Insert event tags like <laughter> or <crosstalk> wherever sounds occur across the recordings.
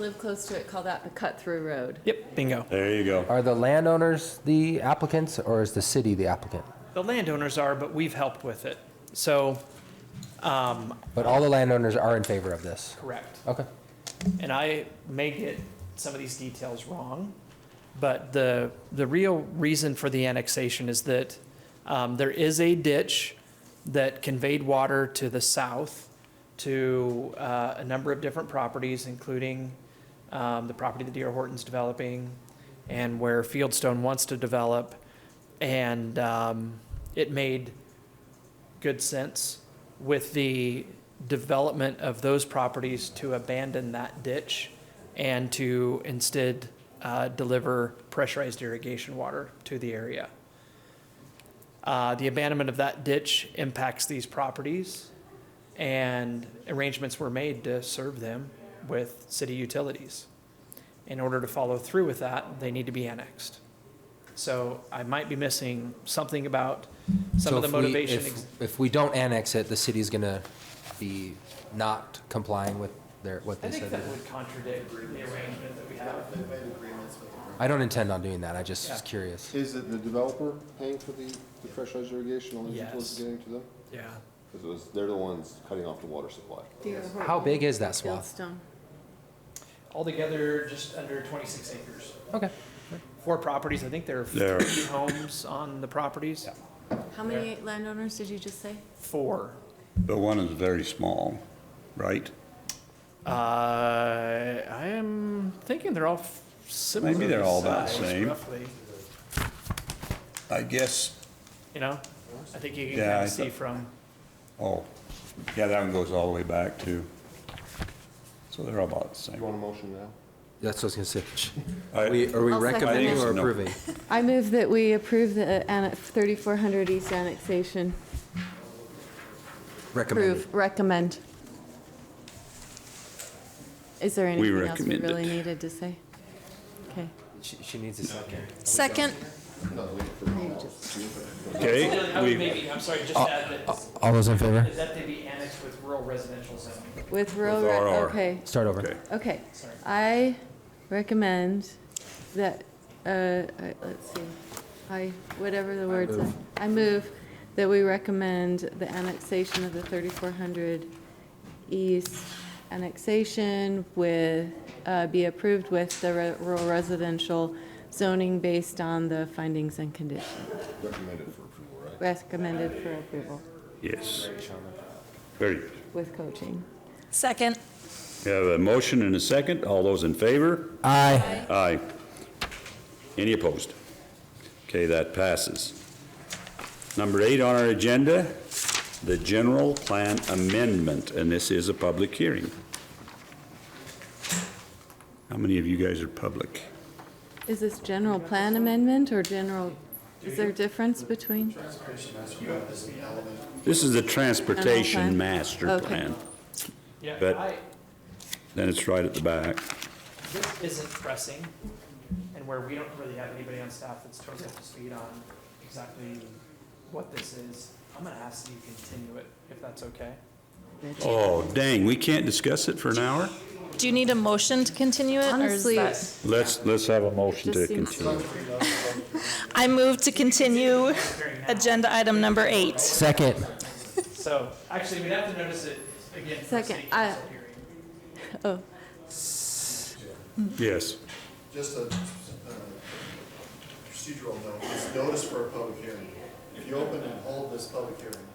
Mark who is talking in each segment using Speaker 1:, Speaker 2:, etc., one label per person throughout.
Speaker 1: live close to it, call that the cut-through road.
Speaker 2: Yep, bingo.
Speaker 3: There you go.
Speaker 4: Are the landowners the applicants or is the city the applicant?
Speaker 2: The landowners are, but we've helped with it. So,
Speaker 4: But all the landowners are in favor of this.
Speaker 2: correct.
Speaker 4: Okay.
Speaker 2: And I may get some of these details wrong, but the, the real reason for the annexation is that um, there is a ditch that conveyed water to the south to uh, a number of different properties, including um, the property that D.R. Horton's developing and where Fieldstone wants to develop. And um, it made good sense with the development of those properties to abandon that ditch and to instead uh, deliver pressurized irrigation water to the area. Uh, The abandonment of that ditch impacts these properties, and arrangements were made to serve them with city utilities. In order to follow through with that, they need to be annexed. So I might be missing something about some
Speaker 4: So
Speaker 2: of the
Speaker 4: if we-
Speaker 2: motivation.
Speaker 4: if-
Speaker 2: ex-
Speaker 4: If we don't annex it, the city's gonna be not complying with their, what
Speaker 2: I
Speaker 4: they
Speaker 2: think
Speaker 4: said.
Speaker 2: that would contradict the arrangement that we have.
Speaker 4: I don't intend on doing that. I just
Speaker 2: Yeah.
Speaker 4: was curious.
Speaker 5: Is it the developer paying for the, the pressurized irrigation, all these utilities
Speaker 2: Yes.
Speaker 5: getting to them?
Speaker 2: Yeah.
Speaker 5: Because it was, they're the ones cutting off the water supply.
Speaker 4: How big is that swath?
Speaker 1: Fieldstone.
Speaker 2: Altogether, just under twenty-six acres.
Speaker 4: Okay.
Speaker 2: Four properties, I think there are
Speaker 3: There.
Speaker 2: three homes on the properties.
Speaker 1: How many landowners did you just say?
Speaker 2: Four.
Speaker 3: But one is very small, right?
Speaker 2: Uh, I am thinking they're all f- similar.
Speaker 3: Maybe they're all about the
Speaker 2: size,
Speaker 3: same.
Speaker 2: Roughly,
Speaker 3: I guess,
Speaker 2: you know, I think you can
Speaker 3: Yeah,
Speaker 2: kind
Speaker 3: I
Speaker 2: of see
Speaker 3: thought-
Speaker 2: from,
Speaker 3: oh, yeah, that one goes all the way back too. So they're all about the
Speaker 5: You
Speaker 3: same.
Speaker 5: want a motion now?
Speaker 4: That's what I was gonna
Speaker 3: I-
Speaker 4: say. We- Are we
Speaker 1: I'll second
Speaker 4: recommending
Speaker 3: it.
Speaker 4: or
Speaker 3: No.
Speaker 4: <laughs> approving?
Speaker 1: I move that we approve the 3400 East annexation.
Speaker 4: Recommending.
Speaker 1: Approve, recommend. Is there
Speaker 3: We
Speaker 1: anything else we
Speaker 3: recommend it.
Speaker 1: really needed to say? Okay.
Speaker 4: She she needs a second.
Speaker 1: Second.
Speaker 3: Okay, we, Uh,
Speaker 2: maybe, I'm sorry, just add that,
Speaker 4: All those in favor?
Speaker 2: is that to be annexed with rural residential zoning?
Speaker 1: With rural,
Speaker 3: With RR.
Speaker 1: okay.
Speaker 4: Start over.
Speaker 3: Okay.
Speaker 1: Okay, I recommend that, uh, I- let's see, I, whatever the words are. I move that we recommend the annexation of the 3400 East annexation with, uh, be approved with the re- rural residential zoning based on the findings and conditions
Speaker 5: Recommended for approval, right?
Speaker 1: recommended for approval
Speaker 3: yes. Very good.
Speaker 1: with coaching.
Speaker 6: Second.
Speaker 3: We have a motion and a second. All those in favor?
Speaker 4: Aye.
Speaker 3: Aye. Any opposed? Okay, that passes. Number eight on our agenda, the general plan amendment, and this is a public hearing. How many of you guys are public?
Speaker 1: Is this general plan amendment or general, is there a difference between?
Speaker 3: This is the
Speaker 1: General
Speaker 3: transportation
Speaker 1: plan?
Speaker 3: master
Speaker 1: Okay.
Speaker 3: plan.
Speaker 2: Yeah,
Speaker 3: But-
Speaker 2: I,
Speaker 3: Then it's right at the back.
Speaker 2: this isn't pressing, and where we don't really have anybody on staff that's totally up to speed on exactly what this is, I'm gonna ask that you continue it, if that's okay.
Speaker 3: Oh, dang, we can't discuss it for an hour?
Speaker 6: Do you need a motion to continue it? or is
Speaker 1: Honestly,
Speaker 6: that-
Speaker 3: Let's, let's have a motion to
Speaker 1: Just seems-
Speaker 3: continue.
Speaker 6: I move to continue agenda item number eight.
Speaker 4: Second.
Speaker 2: So, actually, we'd have to notice it again for a
Speaker 1: Second,
Speaker 2: city
Speaker 1: I-
Speaker 2: council hearing.
Speaker 1: oh.
Speaker 3: Yes.
Speaker 7: Just a uh, procedural note, it's notice for a public hearing. If you open and hold this public hearing,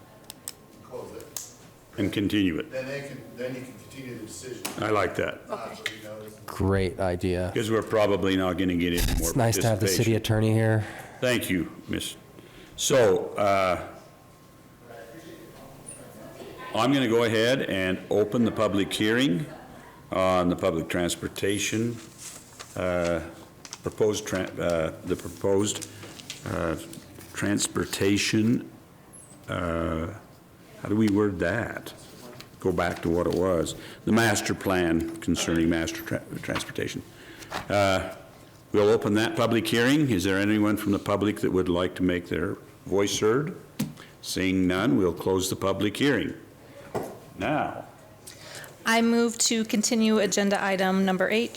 Speaker 7: close it,
Speaker 3: And continue it.
Speaker 7: then they can, then you can continue the decision.
Speaker 3: I like that,
Speaker 7: After you notice.
Speaker 4: Great idea.
Speaker 3: because we're probably not going to get any more
Speaker 4: It's nice to have the
Speaker 3: participation.
Speaker 4: city attorney here.
Speaker 3: Thank you, Miss. So, uh, I'm going to go ahead and open the public hearing on the public transportation, uh, proposed, tran- uh, the proposed uh, transportation, uh, how do we word that? Go back to what it was, the master plan concerning master tra- transportation. We'll open that public hearing. Is there anyone from the public that would like to make their voice heard? Seeing none, we'll close the public hearing. Now,
Speaker 6: I move to continue agenda item number eight,